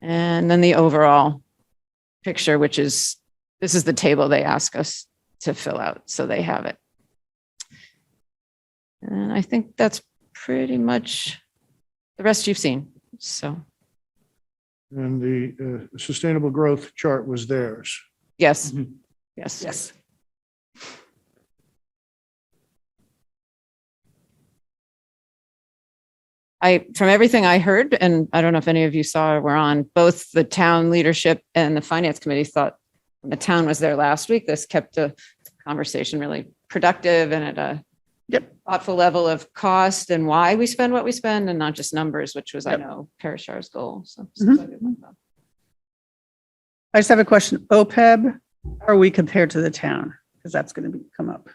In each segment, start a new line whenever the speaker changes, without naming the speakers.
And then the overall picture, which is, this is the table they ask us to fill out, so they have it. And I think that's pretty much the rest you've seen, so,
And the uh, sustainable growth chart was theirs.
yes,
Mhm.
yes.
Mm-hmm. Yes.
I, from everything I heard, and I don't know if any of you saw or were on, both the town leadership and the finance committee thought the town was there last week. This kept the conversation really productive and at a
Yep.
thoughtful level of cost and why we spend what we spend and not just numbers, which was, I
Yep. Mm-hmm.
know, Parashar's goal. So.
I just have a question. OPEB, how are we compared to the town? Because that's going to be, come up.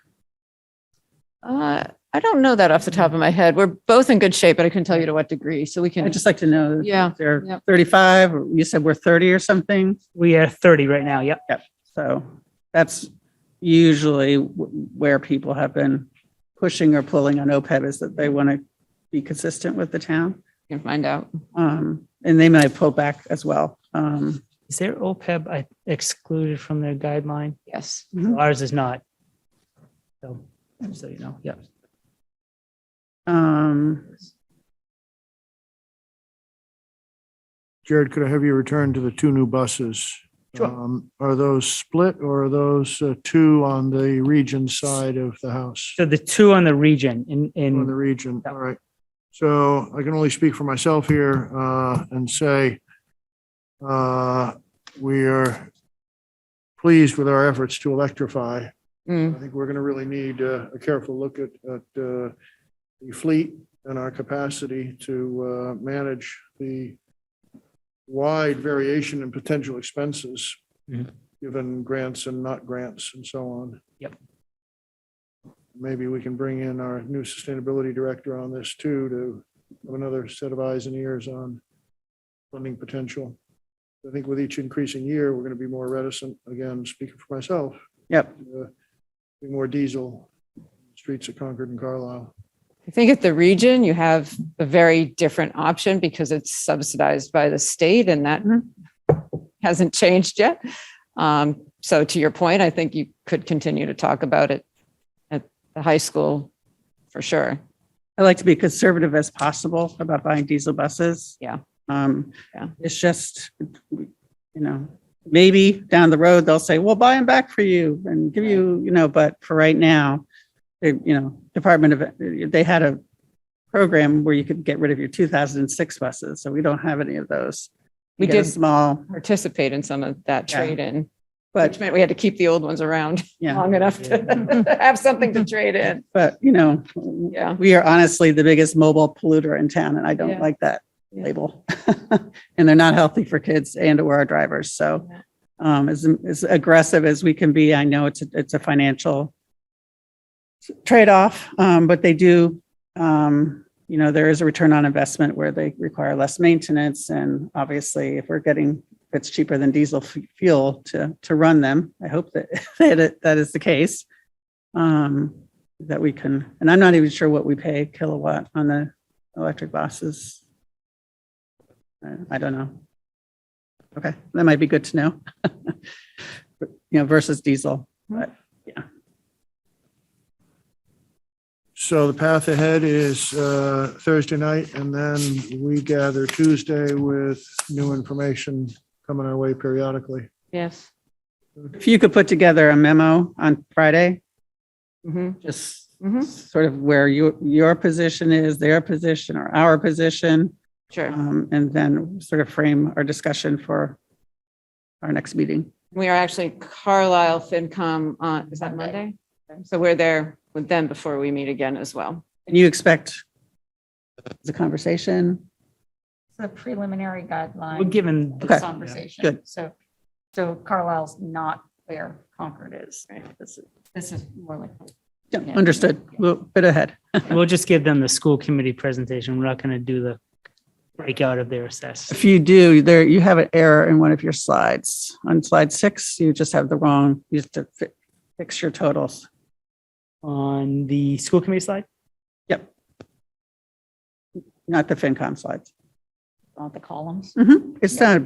Uh, I don't know that off the top of my head. We're both in good shape, but I couldn't tell you to what degree. So we can,
I'd just like to know. if
Yeah,
They're
yep.
35, or you said we're 30 or something.
We are 30 right now, yep.
So that's usually wh- where people have been pushing or pulling on OPEB is that they want to be consistent with the town.
can find out.
Um, And they might pull back as well. Um,
Is there OPEB I- excluded from their guideline?
Yes.
Ours is not. So, just so you know, yep.
um,
Jared, could I have you return to the two new buses?
Sure.
Um, Are those split or are those uh, two on the region side of the house?
So the two on the region in,
On the
in,
region,
Yeah.
all right. So I can only speak for myself here uh, and say uh, we are pleased with our efforts to electrify.
Mm,
I think we're going to really need uh, a careful look at, at uh, the fleet and our capacity to uh, manage the wide variation in potential expenses,
Mhm.
given grants and not grants and so on.
Yep.
Maybe we can bring in our new sustainability director on this too, to have another set of eyes and ears on funding potential. I think with each increasing year, we're going to be more reticent, again, speaking for myself,
Yep,
uh, be more diesel streets of Concord and Carlisle.
I think at the region, you have a very different option because it's subsidized by the state and that
Mhm.
hasn't changed yet. Um, so to your point, I think you could continue to talk about it at the high school for sure.
I like to be conservative as possible about buying diesel buses.
Yeah.
Um,
Yeah.
it's just, you know, maybe down the road, they'll say, we'll buy them back for you and give you, you know, but for right now, they, you know, Department of, they had a program where you could get rid of your two thousand and six buses, so we don't have any of those.
We
get a
did-
Small,
Participate in some of that
Yeah.
trade in, which
but,
meant we had to keep the old ones around
yeah,
long enough to have something to trade in.
but, you know,
Yeah.
we are honestly the biggest mobile polluter in town and I
Yeah.
don't like that
Yeah.
label. And they're not healthy for kids and or our drivers. So
Yeah.
um, as, as aggressive as we can be, I know it's, a- it's a financial trade-off, um, but they do, um, you know, there is a return on investment where they require less maintenance. And obviously if we're getting, if it's cheaper than diesel f- fuel to, to run them, I hope that, that it- that is the case. Um, that we can, and I'm not even sure what we pay kilowatt on the electric buses. Uh, I don't know. Okay, that might be good to know. But, You know, versus diesel.
So the path ahead is uh, Thursday night, and then we gather Tuesday with new information coming our way periodically.
Yes.
If you could put together a memo on Friday,
Mhm.
just
Mhm.
sort of where your, your position is, their position or our position,
Sure.
um, and then sort of frame our discussion for our next meeting.
We are actually Carlisle FinCom on, is that Monday? So we're there with them before we meet again as well.
And you expect the conversation?
It's a preliminary
we're
guideline
given.
of
Okay.
conversation.
good.
So, so Carlisle's not where Concord is.
Right.
This is, this is more like.
Yeah, Understood. Well, Bit ahead.
We'll just give them the school committee presentation. We're not going to do the breakout of their assess.
If you do, there, you have an error in one of your slides. On slide six, you just have the wrong, you just have to fi- fix your totals.
On the school committee slide,
Not the FinCom slides.
On the columns.
Mhm. It's not a